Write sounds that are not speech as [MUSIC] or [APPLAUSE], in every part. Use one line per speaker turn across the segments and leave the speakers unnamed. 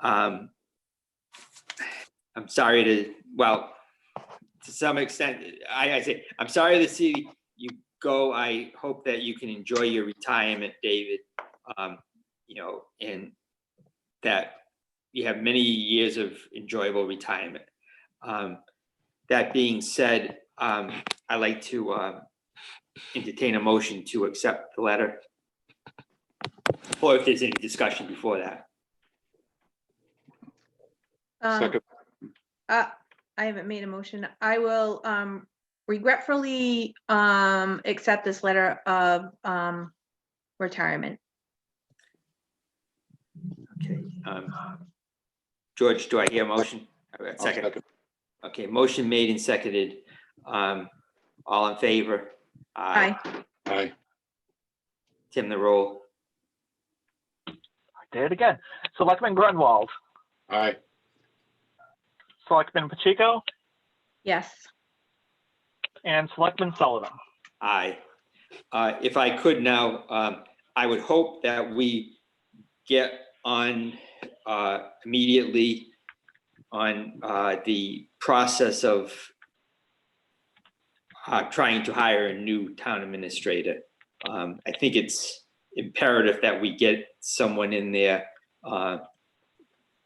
Um, I'm sorry to, well, to some extent, I, I say, I'm sorry to see you go. I hope that you can enjoy your retirement, David. Um, You know, and that you have many years of enjoyable retirement. Um, That being said, um, I'd like to um, entertain a motion to accept the letter. Or if there's any discussion before that.
Um,
Second,
uh, I haven't made a motion. I will um, regretfully um, accept this letter of um, retirement.
Okay. um, George, do I hear a motion? Uh,
I'll
Second,
second.
okay, motion made and seconded. Um, All in favor?
Aye.
Aye,
Tim, the roll.
Did it again. Selectman Grunwald,
aye,
Selectman Pacheco,
Yes.
and Selectman Sullivan.
Aye. Uh, If I could now, um, I would hope that we get on uh, immediately on uh, the process of uh, trying to hire a new town administrator. Um, I think it's imperative that we get someone in there uh,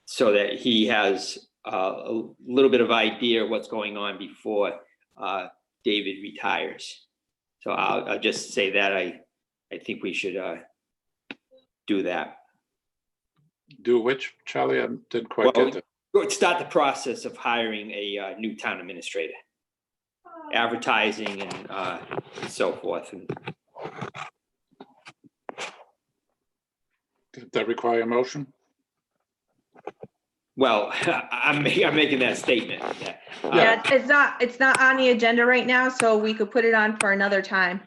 so that he has uh, a little bit of idea what's going on before uh, David retires. So I'll, I'll just say that I, I think we should, uh, do that.
do which, Charlie, I didn't quite
Well,
get that.
Go- Start the process of hiring a, uh, new town administrator. Advertising and, uh, so forth. And
Did that require a motion?
Well, [LAUGHS] I'm, ma- I'm making that statement. yeah. Uh,
Yeah, it's- it's not, it's not on the agenda right now, so we could put it on for another time.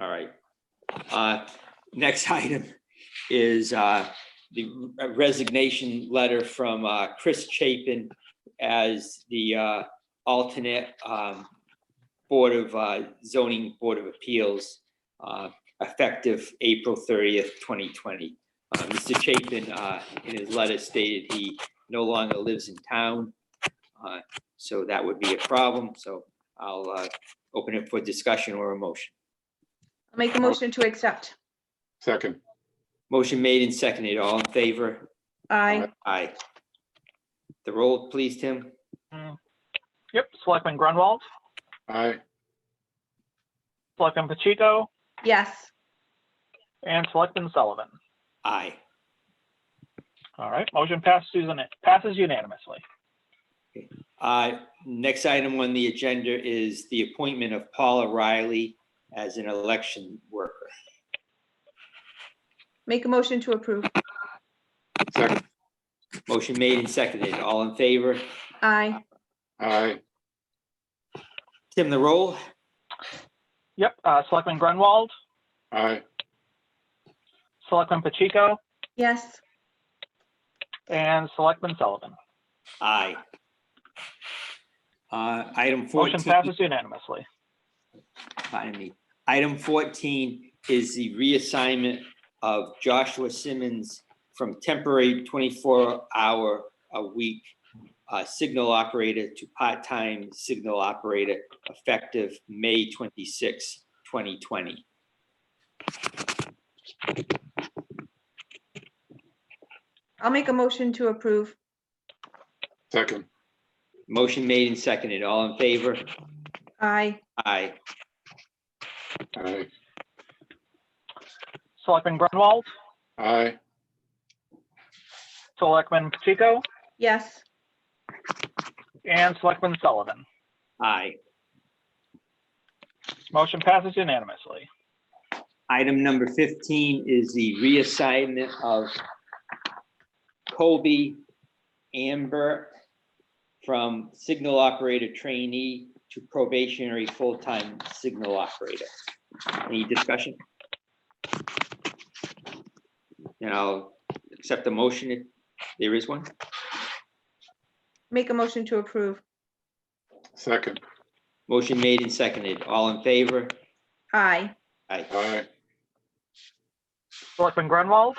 All right. Uh, Next [LAUGHS] item is uh, the resignation letter from uh, Chris Chapin as the uh, alternate um, Board of uh, Zoning Board of Appeals uh, effective April 30th, 2020. Uh, Mr. Chapin, uh, in his letter stated he no longer lives in town. uh, So that would be a problem. So I'll uh, open it for discussion or a motion.
I'll Make a motion to accept.
Second,
Motion made and seconded. All in favor?
Aye.
Aye. The roll, please, Tim.
Yep, Selectman Grunwald,
aye,
Selectman Pacheco,
Yes.
and Selectman Sullivan.
Aye.
All right, motion passes unan- passes unanimously.
Uh, Next item on the agenda is the appointment of Paula Riley as an election worker.
Make a motion to approve.
second,
Motion made and seconded. All in favor?
Aye.
aye,
Tim, the roll?
Yep, uh, Selectman Grunwald,
aye,
Selectman Pacheco,
Yes.
and Selectman Sullivan.
Aye. Uh, Item
Motion
14,
passes unanimously.
pardon me. Item 14 is the reassignment of Joshua Simmons from temporary 24-hour-a-week uh, signal operator to part-time signal operator effective May 26, 2020.
I'll make a motion to approve.
second,
Motion made and seconded. All in favor?
Aye.
Aye.
aye,
Selectman Grunwald,
aye,
Selectman Pacheco,
Yes.
and Selectman Sullivan.
Aye.
Motion passes unanimously.
Item number 15 is the reassignment of Kobe Amber from signal operator trainee to probationary full-time signal operator. Any discussion? And I'll accept the motion if there is one.
Make a motion to approve.
second,
Motion made and seconded. All in favor?
Aye.
Aye.
aye.
Selectman Grunwald,